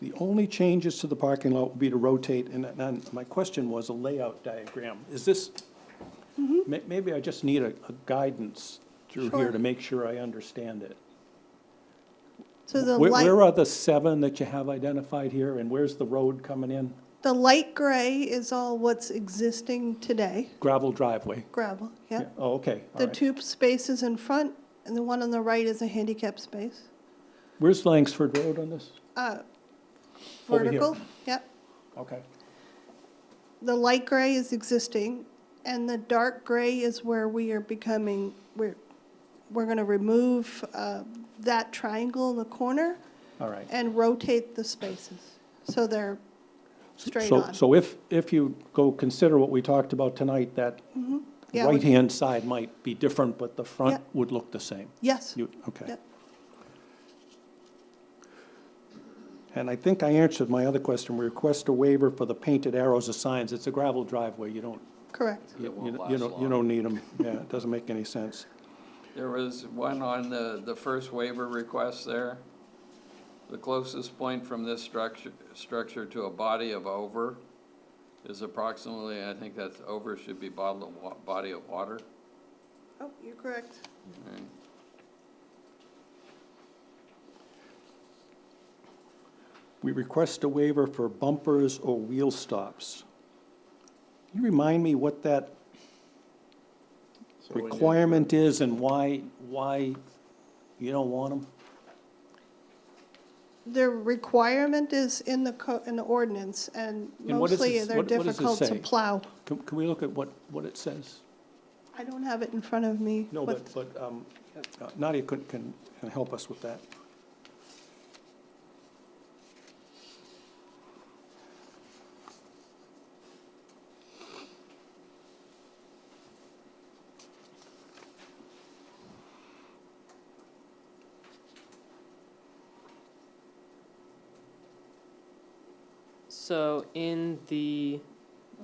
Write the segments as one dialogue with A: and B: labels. A: The only changes to the parking lot would be to rotate, and, and my question was a layout diagram. Is this, may, maybe I just need a, a guidance through here
B: Mm-hmm. Sure.
A: to make sure I understand it.
B: So the
A: Where, where
B: light,
A: are the seven that you have identified here, and where's the road coming in?
B: the light gray is all what's existing today,
A: Gravel driveway?
B: gravel, yeah.
A: Yeah, Oh, okay, all
B: The
A: right.
B: two spaces in front and the one on the right is a handicap space.
A: Where's Langsford Road on this?
B: Uh,
A: Over here.
B: Vertical, yep.
A: Okay.
B: The light gray is existing and the dark gray is where we are becoming, we're, we're gonna remove, uh, that triangle in the corner
A: All right.
B: and rotate the spaces. So they're straight
A: So-
B: on.
A: So if, if you go consider what we talked about tonight, that
B: Mm-hmm. Yeah, we-
A: right-hand side might be different, but the front
B: Yeah.
A: would look the same.
B: Yes,
A: You, okay.
B: Yep.
A: And I think I answered my other question, we request a waiver for the painted arrows of signs. It's a gravel driveway, you don't,
B: correct.
A: you-
C: won't
A: you
C: last
A: you don't, you
C: long.
A: don't need them. Yeah, it doesn't make any sense.
C: There was one on the, the first waiver request there. The closest point from this structure, structure to a body of over is approximately, I think that's over should be bottle of wa, body of water.
B: Oh, you're correct.
A: We request a waiver for bumpers or wheel stops. Can you remind me what that requirement is and why, why you don't want them?
B: The requirement is in the co, in the ordinance, and
A: And what does
B: mostly
A: it-
B: they're
A: what- what does it
B: difficult to
A: say?
B: plow.
A: Can, can we look at what, what it says?
B: I don't have it in front of me.
A: No,
B: what-
A: but, but um, uh, Nadia can, can can help us with that.
D: So in the,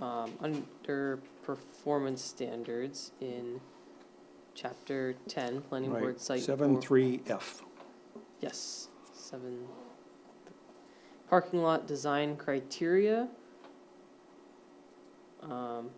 D: um, under performance standards in chapter ten, planning
A: Right.
D: board site.
A: Seven,
D: or-
A: three, F.
D: Yes, seven. Parking lot design criteria. Um,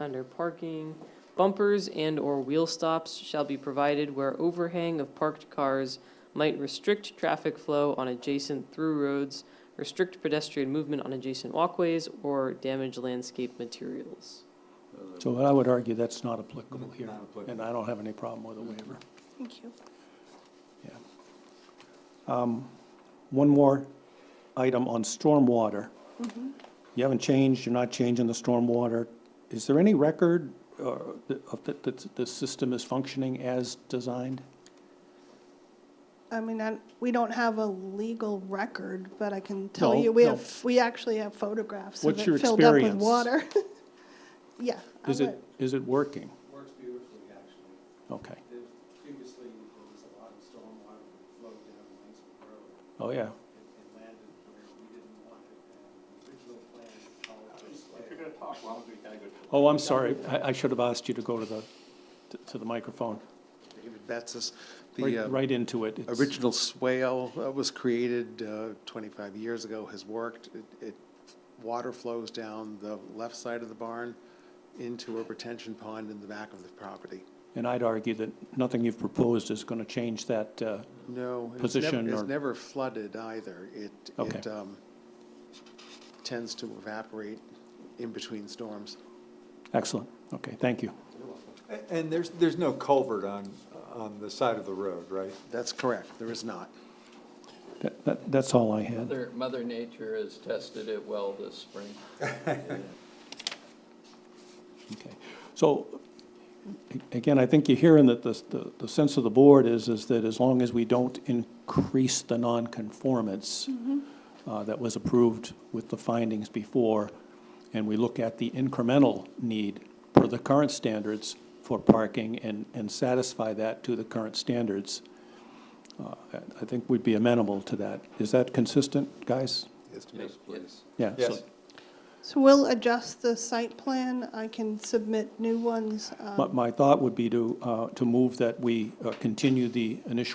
D: Under parking, bumpers and/or wheel stops shall be provided where overhang of parked cars might restrict traffic flow on adjacent through roads, restrict pedestrian movement on adjacent walkways, or damage landscape materials.
A: So I would argue that's not applicable here,
E: Not applicable.
A: and I don't have any problem with a waiver.
B: Thank you.
A: One more item on stormwater.
D: Mm-hmm.
A: You haven't changed, you're not changing the stormwater. Is there any record uh, that- of that, that the system is functioning as designed?
B: I mean, I, we don't have a legal record, but I can tell
A: No,
B: you, we
A: no.
B: have, we actually have photographs of
A: What's your
B: it filled up with
A: experience?
B: water. Yeah. I
A: Is it,
B: would-
A: is it working?
E: Works beautifully, actually.
A: Okay,
E: There's previously, there was a lot of stormwater that flowed down Langsford Road
A: oh, yeah.
E: and and landed where we didn't want it. And the original plan called for a slab. If you're gonna talk loud, we gotta go.
A: Oh, I'm sorry, I, I should have asked you to go to the, to- to the microphone,
E: David Betsis,
A: right,
E: the uh,
A: right into it. It's-
E: original swale that was created uh, 25 years ago has worked. It, it, water flows down the left side of the barn into a retention pond in the back of the property.
A: And I'd argue that nothing you've proposed is going to change that, uh,
E: No. and it's nev-
A: Position
E: It's
A: or-
E: never flooded either. It,
A: Okay.
E: it um, tends to evaporate in between storms.
A: excellent, okay, thank you.
F: A- And there's, there's no culvert on, on the side of the road, right?
E: That's correct, there is not.
A: That- That, that's all I had.
C: Mother, Mother Nature has tested it well this spring.
A: Okay, so, a- again, I think you're hearing that the, the- the sense of the board is, is that as long as we don't increase the non-conformance uh, that was approved with the findings before, and we look at the incremental need per the current standards for parking and, and satisfy that to the current standards, uh, I- I think we'd be amenable to that. Is that consistent, guys?
C: Yes, please.
A: Yeah. so-
F: Yes.
B: So we'll adjust the site plan. I can submit new ones. um,
A: My, my thought would be to, uh, to move that we uh, continue the initial